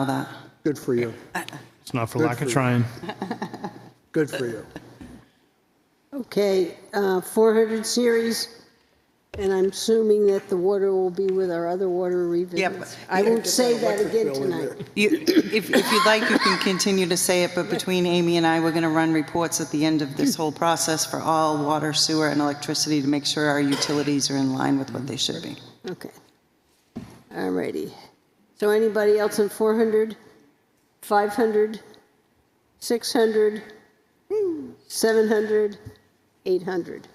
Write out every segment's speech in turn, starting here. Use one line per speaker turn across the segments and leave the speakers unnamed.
all that.
Good for you.
It's not for
Good
lack
for
of
you.
trying.
Good for you.
Okay, uh, 400 series, and I'm assuming that the water will be with our other water revisions. I won't say that again tonight.
You- If, if you'd like, you can continue to say it, but between Amy and I, we're going to run reports at the end of this whole process for all water, sewer, and electricity to make sure our utilities are in line with what they should be.
Okay. All righty. So anybody else in 400, 500, 600, 700, 800?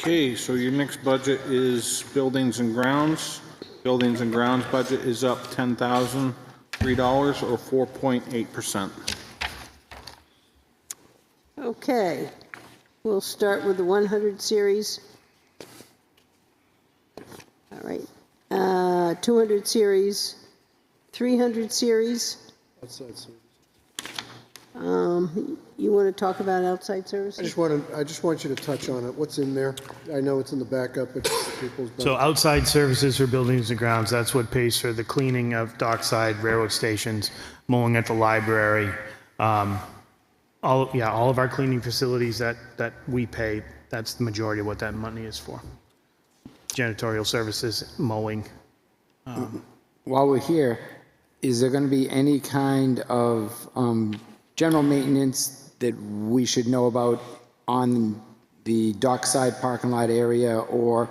Okay, so your next budget is buildings and grounds. Buildings and grounds budget is up $10,003 or 4.8%.
Okay, we'll start with the 100 series. All right, Uh, 200 series, 300 series.
That's- that's-
You want to talk about outside
I
services?
just want to, I just want you to touch on it. What's in there? I know it's in the backup, but people's.
So outside services for buildings and grounds, that's what pays for the cleaning of dockside, railroad stations, mowing at the library. um, All, yeah, all of our cleaning facilities that, that we pay, that's the majority of what that money is for. Janitorial services, mowing.
while we're here, is there going to be any kind of um, general maintenance that we should know about on the dockside parking lot area or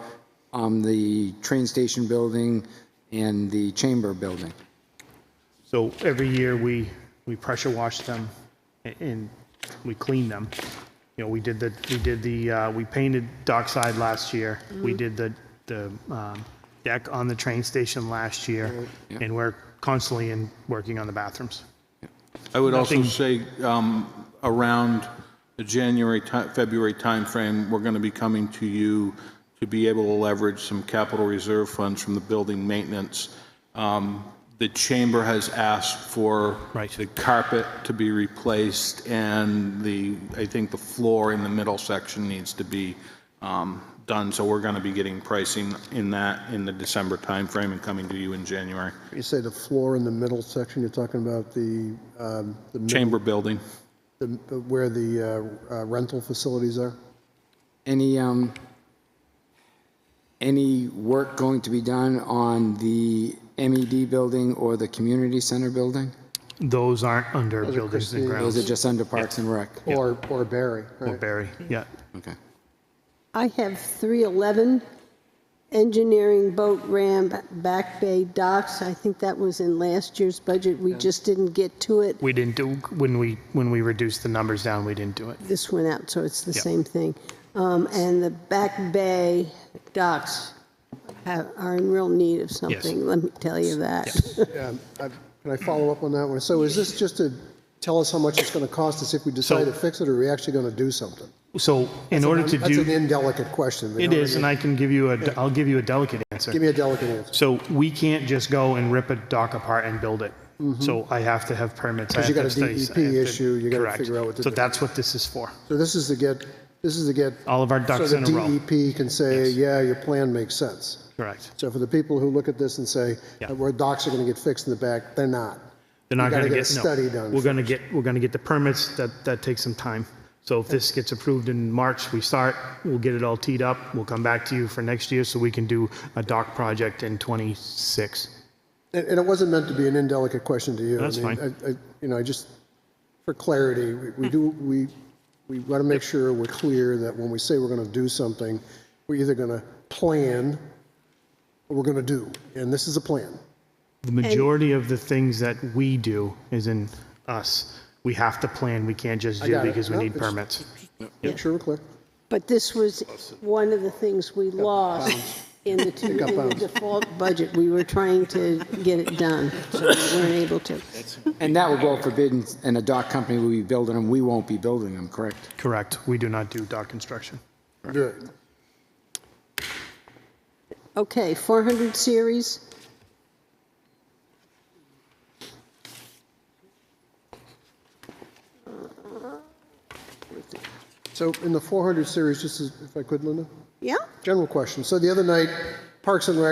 on the train station building and the chamber building?
So every year, we, we pressure wash them a- and we clean them. You know, we did the, we did the, uh, we painted dockside last year. We did the, the um, deck on the train station last year. And we're constantly in, working on the bathrooms.
I would also
Nothing-
say um, around the January, ti- February timeframe, we're going to be coming to you to be able to leverage some capital reserve funds from the building maintenance. Um, The chamber has asked for
Right.
the carpet to be replaced and the, I think the floor in the middle section needs to be um, done. So we're going to be getting pricing in that in the December timeframe and coming to you in January.
You say the floor in the middle section, you're talking about the, um, the mid-
Chamber building.
the- the- where the uh, uh, rental facilities are?
Any, um, any work going to be done on the MED building or the community center building?
Those aren't under buildings and
Christine-
Those are
grounds.
just under Parks and Rec?
Or, or Barry,
Or
right?
Barry, yeah.
Okay.
I have 311, engineering boat ramp, back bay docks. I think that was in last year's budget. We just didn't get to it.
We didn't do, when we, when we reduced the numbers down, we didn't do it.
This went out, so it's the
Yeah.
same thing. Um, And the back bay docks have- are in real need of something, let me tell you that.
Um, I- Can I follow up on that one? So is this just to tell us how much it's going to cost us if we decide to fix it, or are we actually going to do something?
So in order to
That's an
do,
indelicate question. you
it
know
is, and
what
I can give you a, I'll give you a delicate answer.
Give me a delicate answer.
So we can't just go and rip a dock apart and build it. So I have to have permits. I
Mm-hmm. Because you
have to
got a
have studies, I
DEP
have to-
issue, you gotta
correct.
figure out what to
So
do.
that's what this is for.
So this is to get, this is to get.
All of our ducks in a row.
So the E DEP can say, yeah, your plan makes sense.
Correct.
So for the people who look at this and say,
Yeah.
where docks are going to get fixed in the back, they're not.
They're not
You gotta
going to
get a
get, no.
study done
We're going to get, we're going to get the permits. That, that takes some time. So if this gets approved in March, we start, we'll get it all teed up. We'll come back to you for next year so we can do a dock project in 26.
And, and it wasn't meant to be an indelicate question to you.
That's
I mean,
fine.
I, I, you know, I just, for clarity, we, we do, we, we want to make sure we're clear that when we say we're going to do something, we're either going to plan or we're going to do. And this is a plan.
The majority of the things that we do is in us. We have to plan. We can't just do
got it.
because we
No,
need
it's-
permits.
Make sure we're clear.
But this was one of the things we lost in the two-
Got
in the
bounced.
default budget. We were trying to get it done, so we weren't able to.
And that will go forbidden, and a dock company will be building them, we won't be building them, correct?
Correct. We do not do dock construction.
Good.
Okay, 400 series,
So in the 400 series, just as, if I could, Linda?
yeah?
General question. So the other night, Parks and Rec